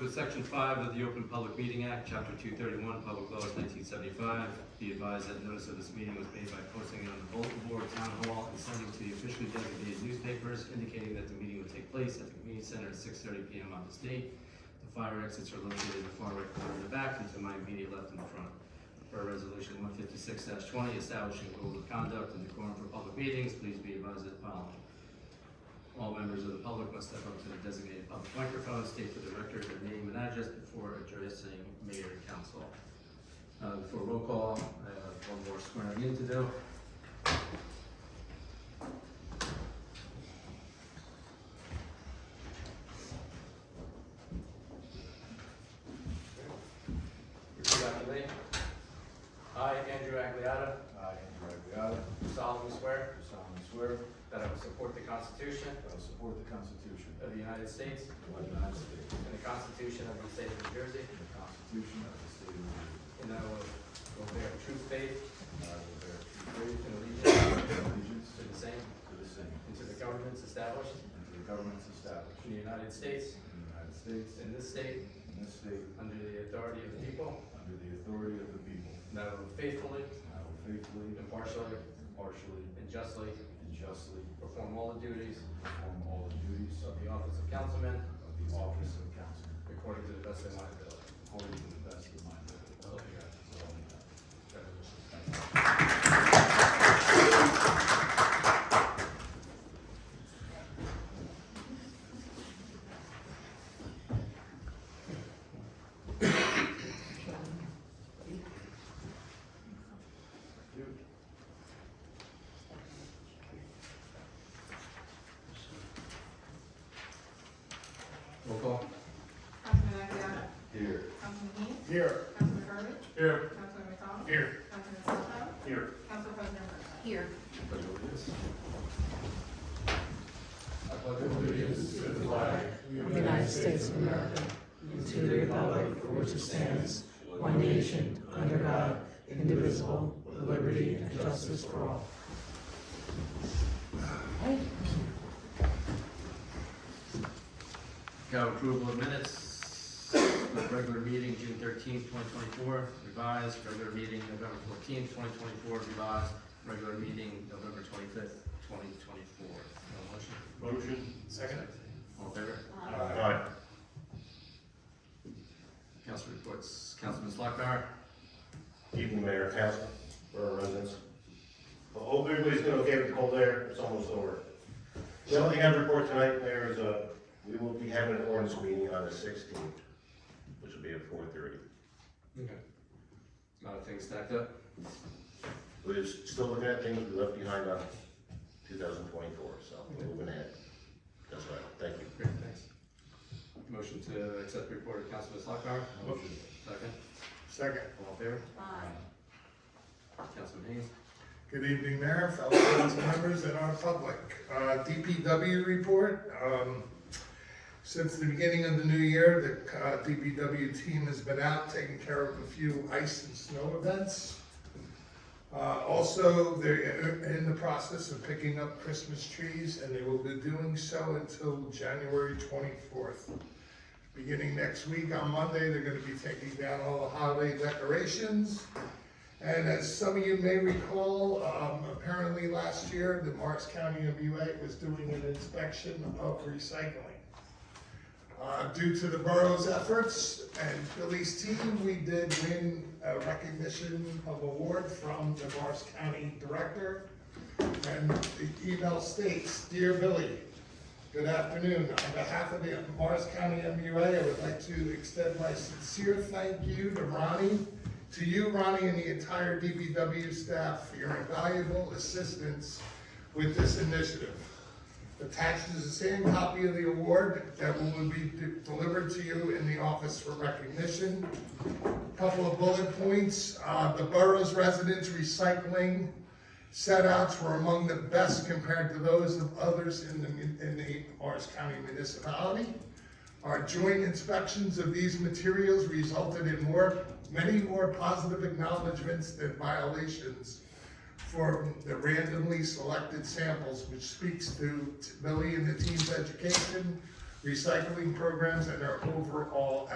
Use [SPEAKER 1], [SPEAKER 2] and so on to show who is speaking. [SPEAKER 1] with Section 5 of the Open Public Meeting Act, Chapter 231, Public Laws 1975, be advised that notice of this meeting was made by posting it on the bulletin board, town hall, and sending to the officially designated newspapers indicating that the meeting would take place at the community center at 6:30 PM on this date. The fire exits are located in the far right corner in the back and to my immediate left in the front. Per Resolution 156-20, establishing rules of conduct and decorum for public meetings, please be advised of the following. All members of the public must step up to the designated public microphone, state for the record their name and address before addressing mayor and council. Uh, for roll call, I have one more swearing in to do.
[SPEAKER 2] Repeat after me. I, Andrew Agliata,
[SPEAKER 3] I, Andrew Agliata,
[SPEAKER 2] do solemnly swear
[SPEAKER 3] do solemnly swear
[SPEAKER 2] that I will support the Constitution
[SPEAKER 3] that I will support the Constitution
[SPEAKER 2] of the United States
[SPEAKER 3] of the United States
[SPEAKER 2] and the Constitution of the State of New Jersey,
[SPEAKER 3] and the Constitution of the State of New Jersey,
[SPEAKER 2] and that I will- will bear true faith
[SPEAKER 3] and I will bear true
[SPEAKER 2] and allegiance
[SPEAKER 3] faith and allegiance
[SPEAKER 2] to the same
[SPEAKER 3] to the same
[SPEAKER 2] and to the governments established
[SPEAKER 3] and to the governments established
[SPEAKER 2] in the United States
[SPEAKER 3] in the United States
[SPEAKER 2] and this state
[SPEAKER 3] and this state
[SPEAKER 2] under the authority of the people,
[SPEAKER 3] under the authority of the people,
[SPEAKER 2] and that I will faithfully,
[SPEAKER 3] and I will faithfully,
[SPEAKER 2] impartially,
[SPEAKER 3] impartially,
[SPEAKER 2] and justly
[SPEAKER 3] and justly
[SPEAKER 2] perform all the duties
[SPEAKER 3] perform all the duties
[SPEAKER 2] of the office of councilman
[SPEAKER 3] of the office of councilman
[SPEAKER 2] according to the best of my ability.
[SPEAKER 3] according to the best of my ability.
[SPEAKER 2] So help me God.
[SPEAKER 3] So help me God.
[SPEAKER 2] Congratulations.
[SPEAKER 1] Roll call?
[SPEAKER 4] Councilman Aguilar,
[SPEAKER 3] Here.
[SPEAKER 4] Councilman Heath,
[SPEAKER 3] Here.
[SPEAKER 4] Councilman Burbidge,
[SPEAKER 3] Here.
[SPEAKER 4] Councilman McDonald,
[SPEAKER 3] Here.
[SPEAKER 4] Councilman Soto,
[SPEAKER 3] Here.
[SPEAKER 4] Council President Bertha. Here.
[SPEAKER 5] of the United States of America, and to the republic for which it stands, one nation, under God, indivisible, with liberty and justice for all.
[SPEAKER 1] Got approval of minutes of regular meeting, June thirteenth, twenty twenty-four, revised, regular meeting, November fourteenth, twenty twenty-four, revised, regular meeting, November twenty-fifth, twenty twenty-four. motion?
[SPEAKER 6] Motion. Second.
[SPEAKER 1] All in favor?
[SPEAKER 6] Aye.
[SPEAKER 1] Council reports, Councilman Slakbar?
[SPEAKER 6] Evening, Mayor, Council, or residents. Well, hope everybody's been okay with the cold air, it's almost over. The only thing I report tonight, Mayor, is, uh, we will be having an ordinance meeting on the sixteenth, which will be at four thirty.
[SPEAKER 1] Okay. A lot of things stacked up.
[SPEAKER 6] We're still looking at things we left behind on two thousand twenty-four, so we're moving ahead. That's right, thank you.
[SPEAKER 1] Great, thanks. Motion to accept the report of Councilman Slakbar?
[SPEAKER 6] Motion.
[SPEAKER 1] Second,
[SPEAKER 7] Second.
[SPEAKER 1] all in favor?
[SPEAKER 4] Aye.
[SPEAKER 1] Councilman Haynes?
[SPEAKER 7] Good evening, Mayor, fellow council members, and our public. Uh, DPW report, um, since the beginning of the new year, the uh, DPW team has been out taking care of a few ice and snow events. Uh, Also, they're in the process of picking up Christmas trees, and they will be doing so until January 24th. Beginning next week, on Monday, they're going to be taking down all the holiday decorations. And as some of you may recall, um, apparently last year, the Morris County MUA was doing an inspection of recycling. Uh, due to the borough's efforts and Billy's team, we did win a recognition of award from the Morris County Director. And the email states, Dear Billy, Good afternoon. On behalf of the Morris County MUA, I would like to extend my sincere thank you to Ronnie, to you, Ronnie, and the entire DBW staff for your invaluable assistance with this initiative. Attached is the same copy of the award that will be de- delivered to you in the office for recognition. Couple of bullet points, uh, the borough's residents recycling setouts were among the best compared to those of others in the, mun- in the Morris County municipality. Our joint inspections of these materials resulted in more, many more positive acknowledgements than violations for the randomly selected samples, which speaks to Billy and the team's education, recycling programs, and their overall